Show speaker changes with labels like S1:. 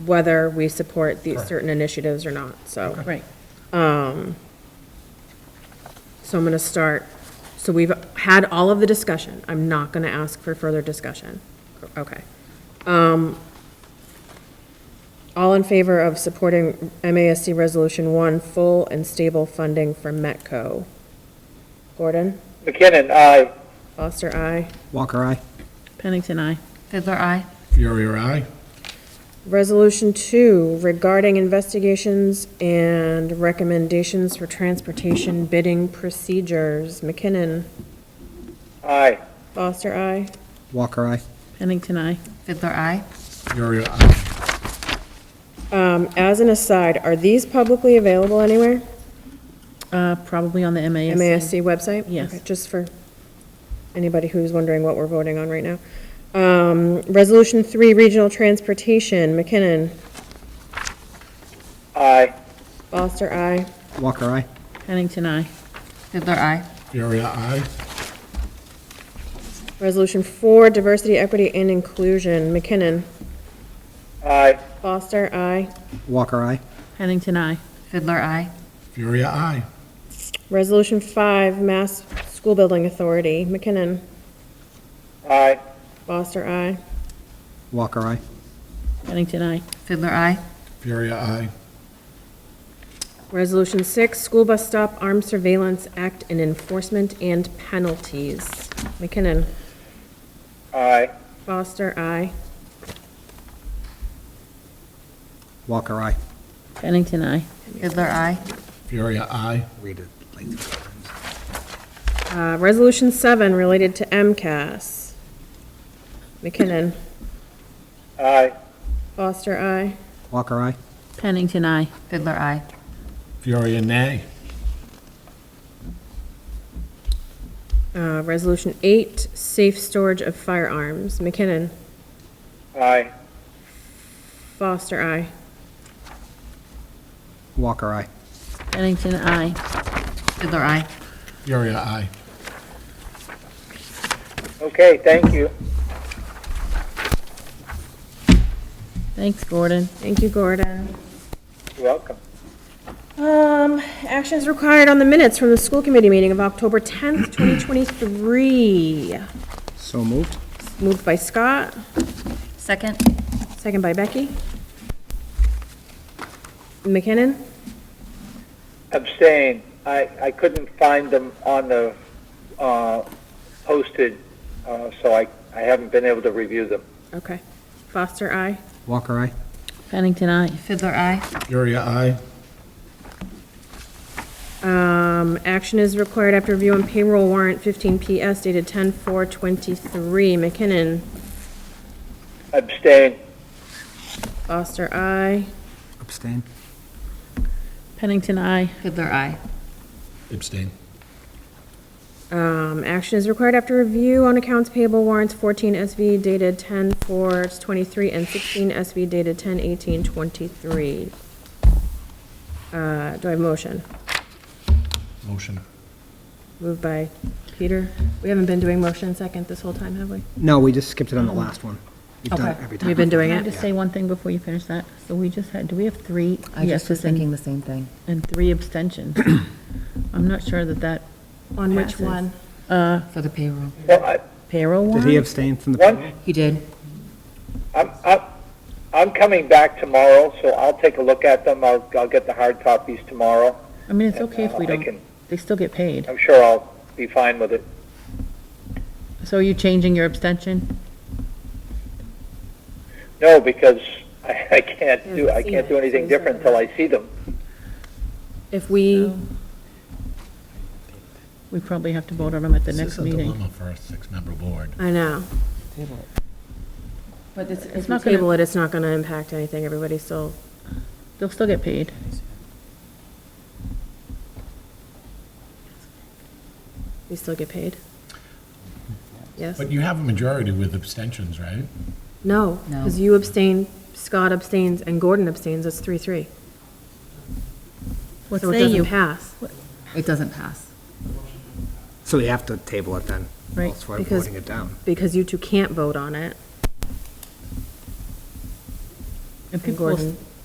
S1: whether we support these certain initiatives or not, so. Um,
S2: Right.
S1: So I'm going to start, so we've had all of the discussion. I'm not going to ask for further discussion. Okay. Um, All in favor of supporting MASC Resolution 1, full and stable funding for Metco? Gordon?
S3: McKinnon, aye.
S1: Foster, aye.
S4: Walker, aye.
S2: Pennington, I.
S5: Fiddler, aye.
S6: Fury, aye.
S1: Resolution 2, regarding investigations and recommendations for transportation bidding procedures. McKinnon?
S3: Aye.
S1: Foster, aye.
S4: Walker, aye.
S2: Pennington, I.
S5: Fiddler, aye.
S6: Fury, aye.
S1: Um, As an aside, are these publicly available anywhere?
S2: Uh, Probably on the MASC.
S1: MASC website?
S2: Yes.
S1: Okay, Just for anybody who's wondering what we're voting on right now. Um, Resolution 3, Regional Transportation, McKinnon,
S3: Aye.
S1: Foster, aye.
S4: Walker, aye.
S2: Pennington, I.
S5: Fiddler, aye.
S6: Fury, aye.
S1: Resolution 4, Diversity, Equity, and Inclusion, McKinnon,
S3: Aye.
S1: Foster, aye.
S4: Walker, aye.
S2: Pennington, I.
S5: Fiddler, aye.
S6: Fury, aye.
S1: Resolution 5, Mass School Building Authority, McKinnon,
S3: Aye.
S1: Foster, aye.
S4: Walker, aye.
S2: Pennington, I.
S5: Fiddler, aye.
S6: Fury, aye.
S1: Resolution 6, School Bus Stop Armed Surveillance Act and Enforcement and Penalties, McKinnon,
S3: Aye.
S1: Foster, aye.
S4: Walker, aye.
S2: Pennington, I.
S5: Fiddler, aye.
S6: Fury, aye.
S4: Read it like this.
S1: Uh, Resolution 7, related to MCAS. McKinnon.
S3: Aye.
S1: Foster, I.
S4: Walker, aye.
S2: Pennington, I.
S5: Fiddler, aye.
S6: Fury, nay.
S1: Uh, Resolution 8, safe storage of firearms. McKinnon.
S3: Aye.
S1: Foster, I.
S4: Walker, aye.
S2: Pennington, I.
S5: Fiddler, aye.
S6: Fury, aye.
S3: Okay, thank you.
S2: Thanks, Gordon.
S1: Thank you, Gordon.
S3: You're welcome.
S1: Um, Actions required on the minutes from the school committee meeting of October 10th, 2023.
S4: So moved.
S1: Moved by Scott,
S5: Second.
S1: second by Becky. McKinnon.
S3: Abstain. I, I couldn't find them on the, uh, posted, uh, so I, I haven't been able to review them.
S1: Okay. Foster, I.
S4: Walker, aye.
S2: Pennington, I.
S5: Fiddler, aye.
S6: Fury, aye.
S1: Um, action is required after review on payroll warrant fifteen PS dated ten four twenty-three. McKinnon,
S3: Abstain.
S1: Foster, I.
S4: Abstain.
S2: Pennington, I.
S5: Fiddler, aye.
S6: Abstain.
S1: Um, action is required after review on accounts payable warrants fourteen SV dated ten four twenty-three and sixteen SV dated ten eighteen twenty-three. Uh, do I have a motion?
S6: Motion.
S1: Moved by Peter. We haven't been doing motion second this whole time, have we?
S4: No, we just skipped it on the last one. We've done it
S1: Okay.
S4: every time.
S1: We've been doing
S2: Can I
S1: it.
S2: just say one thing before you finish that? So we just had, do we have three
S5: I just was
S2: yeses and-
S5: thinking the same thing.
S2: and three abstentions? I'm not sure that that
S1: On which
S2: Passes.
S1: one?
S5: For the payroll.
S3: Well, I,
S2: payroll
S4: Did he
S2: warrant?
S4: abstain from the?
S3: One-
S5: He did.
S3: I'm, I'm, I'm coming back tomorrow, so I'll take a look at them. I'll, I'll get the hard copies tomorrow.
S2: I mean, it's okay if we
S3: I
S2: don't,
S3: can-
S2: they still get paid.
S3: I'm sure I'll be fine with it.
S2: So are you changing your abstention?
S3: No, because I, I can't do, I
S1: seen
S3: can't do
S1: it, so
S3: anything
S1: he's not
S3: different until I see them.
S1: If we,
S2: We probably have to vote on them at the next
S6: This is a
S2: meeting.
S6: dilemma for a six-member board.
S1: I know.
S2: But it's
S1: If we
S2: not gonna,
S1: table it, it's not gonna impact anything. Everybody's still
S2: they'll still get paid.
S1: We still get paid? Yes?
S6: But you have a majority with abstentions, right?
S1: No,
S5: No.
S1: because you abstain, Scott abstains, and Gordon abstains, that's three, three.
S2: What
S1: So it
S2: say
S1: doesn't
S2: you?
S1: pass,
S5: It doesn't pass.
S4: So we have to table it then.
S2: Right,
S4: That's why we're
S1: because-
S4: voting it down.
S1: because you two can't vote on it.
S2: And people
S1: Gordon.